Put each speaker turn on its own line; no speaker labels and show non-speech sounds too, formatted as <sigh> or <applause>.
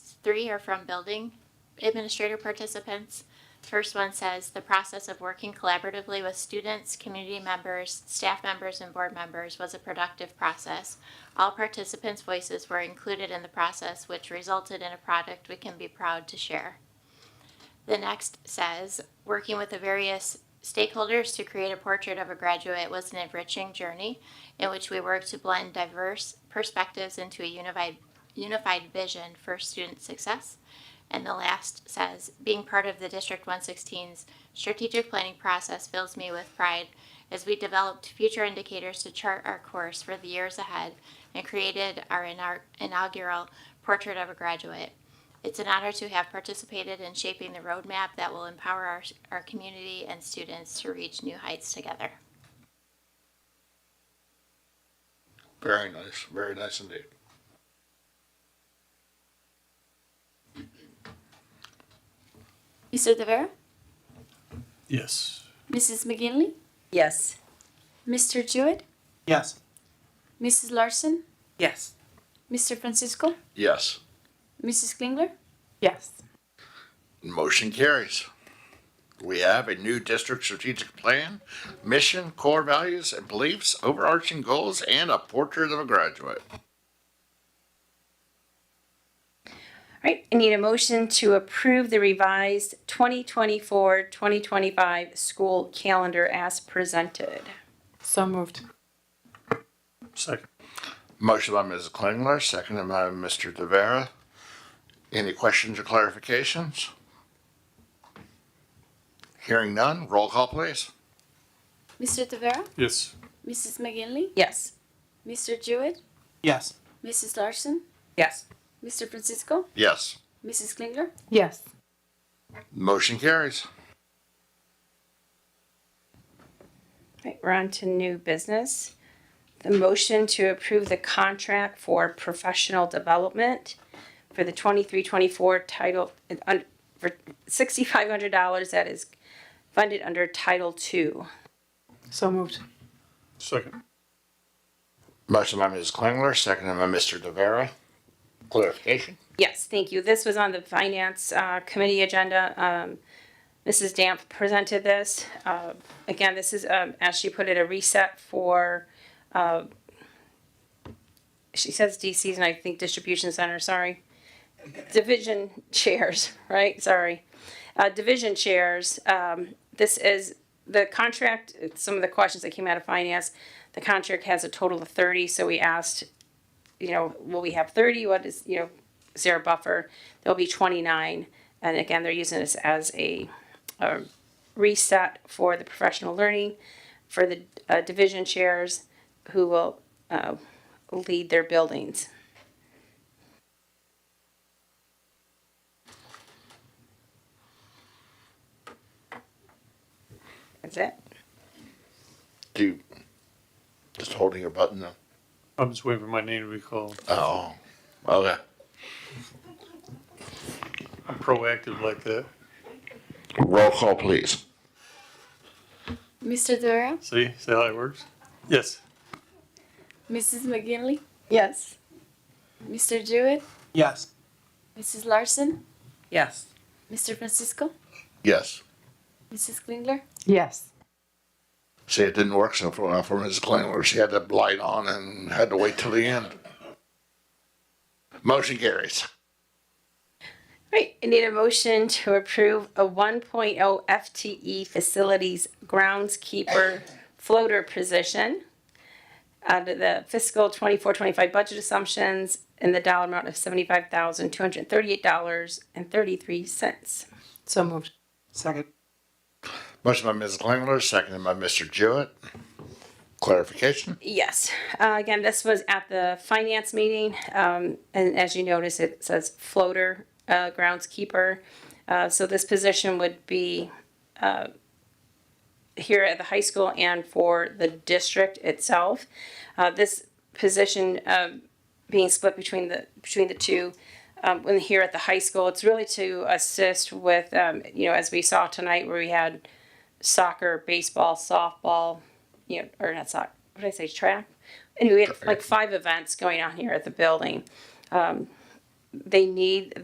Three are from building administrator participants. First one says, "The process of working collaboratively with students, community members, staff members, and board members was a productive process. All participants' voices were included in the process, which resulted in a product we can be proud to share." The next says, "Working with the various stakeholders to create a portrait of a graduate was an enriching journey in which we worked to blend diverse perspectives into a unified unified vision for student success. And the last says, being part of the District 116's strategic planning process fills me with pride as we developed future indicators to chart our course for the years ahead and created our inar- inaugural portrait of a graduate. It's an honor to have participated in shaping the roadmap that will empower our, our community and students to reach new heights together.
Very nice, very nice indeed.
Mr. De Vera,
Yes.
Mrs. McGinley,
Yes.
Mr. Jewett,
Yes.
Mrs. Larson,
Yes.
Mr. Francisco,
Yes,
Mrs. Klingler.
Yes.
motion carries. We have a new district strategic plan, mission, core values and beliefs, overarching goals, and a portrait of a graduate.
All right, I need a motion to approve the revised 2024-2025 school calendar as presented.
So moved.
Second.
Motion by Mrs. Klingler, seconded by Mr. De Vera. Any questions or clarifications? Hearing none, roll call please.
Mr. De Vera,
Yes.
Mrs. McGinley,
Yes.
Mr. Jewett,
Yes.
Mrs. Larson,
Yes.
Mr. Francisco,
Yes,
Mrs. Klingler.
Yes.
motion carries.
All right, we're on to new business. The motion to approve the contract for professional development for the 23-24 title, and un- for $6,500 that is funded under Title II.
So moved.
Second.
Motion by Mrs. Klingler, seconded by Mr. De Vera. Clarification?
Yes, thank you. This was on the Finance uh, Committee agenda. Um, Mrs. Damp presented this. Uh, Again, this is, um, as she put it, a reset for, uh, she says DCs and I think distribution center, sorry. Division chairs, <laughs> right? Sorry. Uh, Division chairs. Um, This is the contract, some of the questions that came out of finance. The contract has a total of 30, so we asked, you know, will we have 30? What is, you know, zero buffer, there'll be twenty-nine. And again, they're using this as a, a reset for the professional learning, for the uh, division chairs who will, uh, lead their buildings. That's it.
Do you, just holding your button though?
I'm just waiting for my name to be called.
Oh, okay.
I'm proactive like that.
Roll call, please.
Mr. De Vera,
See? See how it works? Yes.
Mrs. McGinley,
Yes.
Mr. Jewett,
Yes.
Mrs. Larson,
Yes.
Mr. Francisco,
Yes.
Mrs. Klingler.
Yes.
See, it didn't work so far for Mrs. Klingler. She had the light on and had to wait till the end. Motion carries.
Right, I need a motion to approve a 1.0 FTE E facilities groundskeeper floater position out of the fiscal 24-25 budget assumptions in the dollar amount of seventy-five thousand, two hundred and thirty-eight dollars and thirty-three cents.
So moved.
Second.
Motion by Mrs. Klingler, seconded by Mr. Jewett. Clarification?
Yes, uh, again, this was at the finance meeting, um, and as you notice, it says floater, uh, groundskeeper. Uh, so this position would be, uh, here at the high school and for the district itself. Uh, this position, um, being split between the, between the two, um, when here at the high school, it's really to assist with, um, you know, as we saw tonight where we had soccer, baseball, softball, you know, or not soccer, what did I say, track? And we had like five events going on here at the building. Um, they need